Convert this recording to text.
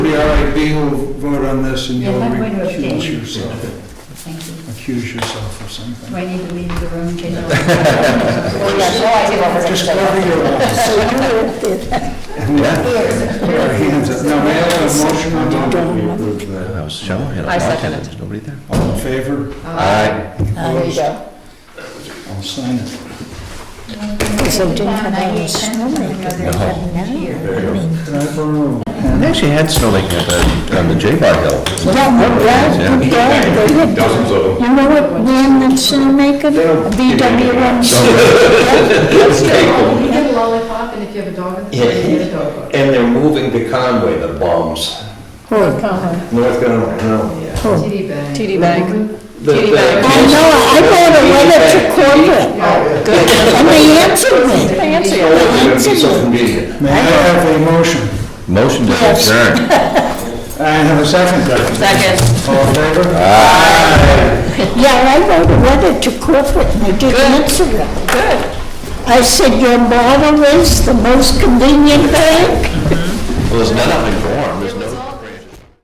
we will vote on this and Yeah, you'll I'm going to recuse abstain. yourself, Thank you. accuse yourself of something. Do I need to leave the room, change over? Oh, yes, oh, I did over Just cover your eyes. Yeah. Put our hands up. Now, may I have a motion on that? We approve the That was show. I second it. There's nobody there. All in favor? Aye. There you go. I'll sign it. So it didn't come out of snow maker, they had Can I borrow? They actually had snowmaking at the, on the J-Bar Hill. now. Dozens of them. You know what ran the snowmaker? BWMC. You get a lollipop, and if you have a dog in the Yeah. family, you get a dog. And they're moving to Conway, the bums. North Carolina, yeah. TD Bank. TD Bank. The- Kitty the- back. I know, I wrote a letter to corporate, Good. and they answered me. They answer Oh, you. it's gonna be so convenient. May I have a motion? Motion to Yes. adjourn. I have a second. Second. All in favor? Yeah, I wrote a letter to corporate, and they didn't answer it. Good. I said, your model is the most convenient bank? Well, there's none up in Gorham. There's